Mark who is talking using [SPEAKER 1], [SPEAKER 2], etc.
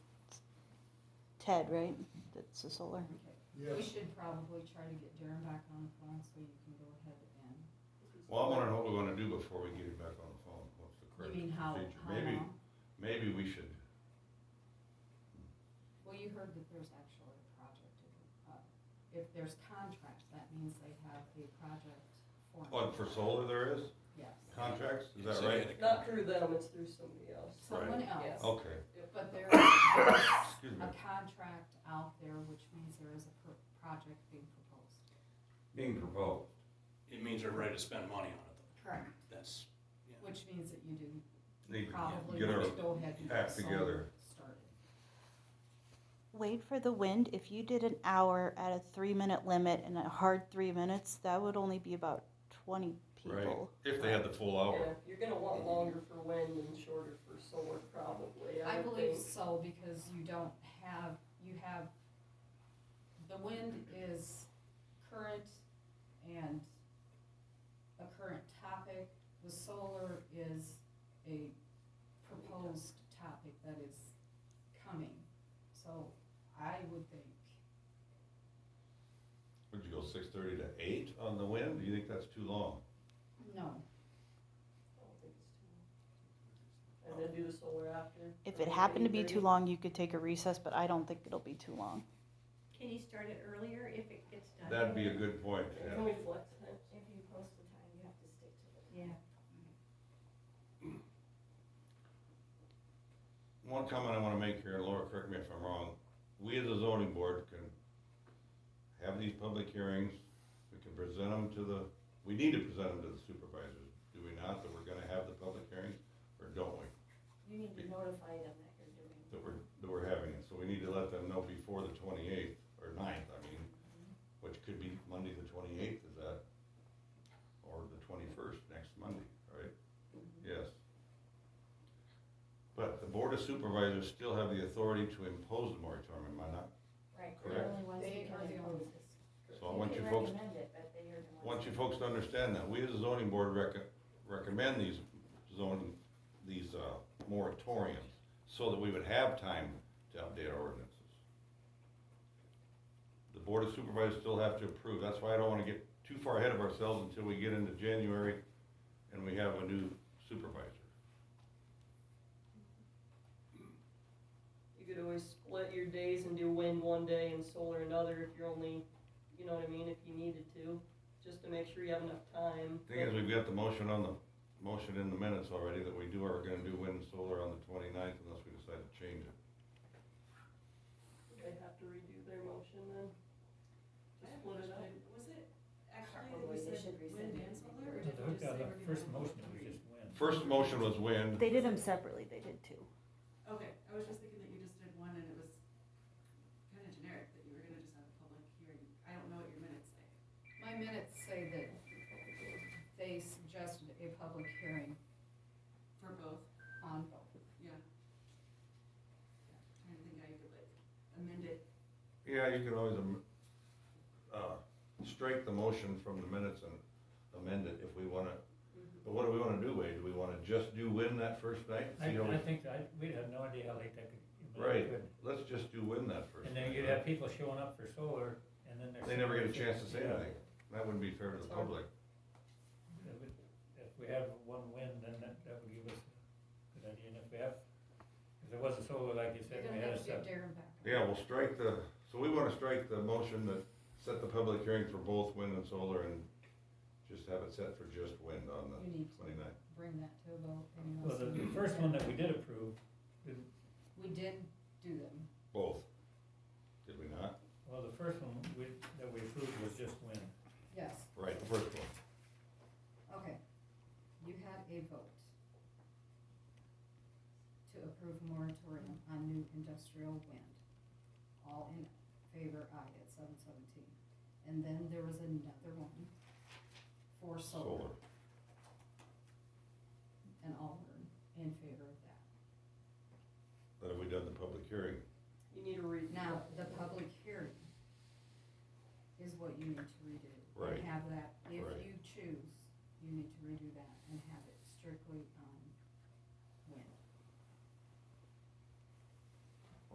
[SPEAKER 1] Ted, right? That's the solar.
[SPEAKER 2] We should probably try to get Darren back on the phone so you can go ahead and,
[SPEAKER 3] Well, I wanna know what we're gonna do before we get it back on the phone, what's the
[SPEAKER 2] you
[SPEAKER 3] correct
[SPEAKER 2] mean how,
[SPEAKER 3] procedure?
[SPEAKER 2] how
[SPEAKER 3] Maybe,
[SPEAKER 2] long?
[SPEAKER 3] maybe we should,
[SPEAKER 2] Well, you heard that there's actually a project, uh, if there's contracts, that means they have a project for.
[SPEAKER 3] oh, for solar there is
[SPEAKER 2] Yes,
[SPEAKER 3] contracts, is that
[SPEAKER 4] So you
[SPEAKER 3] right?
[SPEAKER 4] had a
[SPEAKER 5] Not
[SPEAKER 4] con-
[SPEAKER 5] through them, it's through somebody else.
[SPEAKER 2] someone
[SPEAKER 5] Yes.
[SPEAKER 2] else,
[SPEAKER 3] Okay,
[SPEAKER 2] but there is
[SPEAKER 3] excuse me,
[SPEAKER 2] a contract out there, which means there is a pro- project being proposed.
[SPEAKER 3] being proposed,
[SPEAKER 4] It means they're ready to spend money on it,
[SPEAKER 2] Correct.
[SPEAKER 4] though. that's, yeah.
[SPEAKER 2] Which means that you do
[SPEAKER 3] need to
[SPEAKER 2] probably
[SPEAKER 3] get our
[SPEAKER 2] want to go ahead and
[SPEAKER 3] act
[SPEAKER 2] get solar
[SPEAKER 3] together.
[SPEAKER 2] started.
[SPEAKER 1] Wait for the wind. If you did an hour at a three minute limit and a hard three minutes, that would only be about 20
[SPEAKER 3] Right,
[SPEAKER 1] people.
[SPEAKER 3] if they had the full
[SPEAKER 5] Yeah,
[SPEAKER 3] hour,
[SPEAKER 5] you're gonna want longer for wind and shorter for solar probably, I
[SPEAKER 2] I
[SPEAKER 5] would
[SPEAKER 2] believe
[SPEAKER 5] think.
[SPEAKER 2] so, because you don't have, you have, the wind is current and a current topic. The solar is a proposed topic that is coming. So I would think,
[SPEAKER 3] would you go six thirty to eight on the wind, do you think that's too long?
[SPEAKER 2] no,
[SPEAKER 5] I don't think it's too long. And then do the solar after.
[SPEAKER 1] If
[SPEAKER 5] or
[SPEAKER 1] it happened to be too
[SPEAKER 5] 8:30.
[SPEAKER 1] long, you could take a recess, but I don't think it'll be too long.
[SPEAKER 6] Can you start it earlier if it gets done?
[SPEAKER 3] That'd be a good point,
[SPEAKER 5] Yeah, Can
[SPEAKER 3] yeah,
[SPEAKER 5] we flex that?
[SPEAKER 6] If you post the time, you have to stick to it. Yeah.
[SPEAKER 3] one comment I wanna make here, and Laura, correct me if I'm wrong, we as a zoning board can have these public hearings, we can present them to the, we need to present them to the supervisors, do we not, that we're gonna have the public hearings, or don't we?
[SPEAKER 6] You need to notify them that you're doing it.
[SPEAKER 3] that we're, that we're having it, so we need to let them know before the twenty-eighth, or 9th. I mean, which could be Monday the twenty-eighth, is that? Or the twenty-first, next Monday, right? Yes. But the Board of Supervisors still have the authority to impose the moratorium, am I not?
[SPEAKER 6] Right, they're
[SPEAKER 3] Correct.
[SPEAKER 6] the only ones
[SPEAKER 2] They
[SPEAKER 6] that can
[SPEAKER 2] are the
[SPEAKER 6] impose
[SPEAKER 2] only-
[SPEAKER 6] this.
[SPEAKER 3] So I want
[SPEAKER 6] can
[SPEAKER 3] you folks,
[SPEAKER 6] recommend it, but they are the ones.
[SPEAKER 3] want you
[SPEAKER 6] that-
[SPEAKER 3] folks to understand that, we as a zoning board rec- recommend these zoning, these, uh, moratoriums, so that we would have time to update our ordinances. The board of supervisors still have to approve, that's why I don't wanna get too far ahead of ourselves until we get into January and we have a new supervisor.
[SPEAKER 5] You could always split your days and do wind one day and solar another if you're only, you know what I mean, if you needed to, just to make sure you have enough time.
[SPEAKER 3] Thing is, we've got the motion on the, motion in the minutes already that we do, are gonna do wind and solar on the twenty-ninth unless we decide to change it.
[SPEAKER 5] They have to redo their motion then.
[SPEAKER 7] I
[SPEAKER 5] Just
[SPEAKER 7] have
[SPEAKER 5] split it
[SPEAKER 7] one
[SPEAKER 5] up.
[SPEAKER 7] question. Was it actually,
[SPEAKER 6] Probably
[SPEAKER 7] we
[SPEAKER 6] they
[SPEAKER 7] said
[SPEAKER 6] should rescind
[SPEAKER 7] wind
[SPEAKER 6] it.
[SPEAKER 7] and solar, or
[SPEAKER 6] I
[SPEAKER 7] did we just say we're
[SPEAKER 8] Yeah, the
[SPEAKER 7] gonna
[SPEAKER 8] first
[SPEAKER 7] have all
[SPEAKER 8] motion was
[SPEAKER 7] three?
[SPEAKER 8] just wind.
[SPEAKER 3] First motion was wind,
[SPEAKER 1] They did them separately, they did two.
[SPEAKER 7] Okay, I was just thinking that you just did one and it was kinda generic, that you were gonna just have a public hearing, I don't know what your minutes say.
[SPEAKER 2] my minutes say that they suggested a public hearing
[SPEAKER 7] For both,
[SPEAKER 2] on both.
[SPEAKER 7] yeah. Trying to think how you could like amend it,
[SPEAKER 3] Yeah, you can always, am- uh, strike the motion from the minutes and amend it if we wanna, but what do we wanna do, Wade? Do we wanna just do win that first night?
[SPEAKER 8] I,
[SPEAKER 3] See how we-
[SPEAKER 8] I think, I, we'd have no idea how late that could.
[SPEAKER 3] Right, let's just do win that first.
[SPEAKER 8] And then
[SPEAKER 3] night,
[SPEAKER 8] you'd
[SPEAKER 3] huh?
[SPEAKER 8] have people showing up for solar, and then they're.
[SPEAKER 3] They never get a chance to say anything. That wouldn't be fair to the
[SPEAKER 5] Sorry.
[SPEAKER 3] public.
[SPEAKER 8] That would- If we have one wind, then that, that would give us a good idea, and if we have, if there wasn't solar, like you
[SPEAKER 2] You're
[SPEAKER 8] said, we
[SPEAKER 2] gonna
[SPEAKER 8] had
[SPEAKER 2] have
[SPEAKER 8] a
[SPEAKER 2] to
[SPEAKER 8] sep-
[SPEAKER 2] get Darren back.
[SPEAKER 3] Yeah, we'll strike the, so we wanna strike the motion that set the public hearing for both wind and solar and just have it set for just wind on
[SPEAKER 2] You
[SPEAKER 3] the
[SPEAKER 2] need to
[SPEAKER 3] twenty-ninth.
[SPEAKER 2] bring that to a vote. and
[SPEAKER 8] Well, the, the first one that we did approve, didn't,
[SPEAKER 2] We did do them.
[SPEAKER 3] Both. Did we not?
[SPEAKER 8] well, the first one we, that we approved was just wind.
[SPEAKER 2] Yes,
[SPEAKER 3] Right, the first one.
[SPEAKER 2] okay. You had a vote to approve a moratorium on new industrial wind. All in favor, aye, at seven seventeen. And then there was another one for solar,
[SPEAKER 3] Solar.
[SPEAKER 2] and all were in favor of that.
[SPEAKER 3] Then have we done the public hearing?
[SPEAKER 5] You need to redo.
[SPEAKER 2] Now,
[SPEAKER 5] that.
[SPEAKER 2] the public hearing is what you need to redo.
[SPEAKER 3] Right.
[SPEAKER 2] And have that, if
[SPEAKER 3] Right.
[SPEAKER 2] you choose, you need to redo that. um,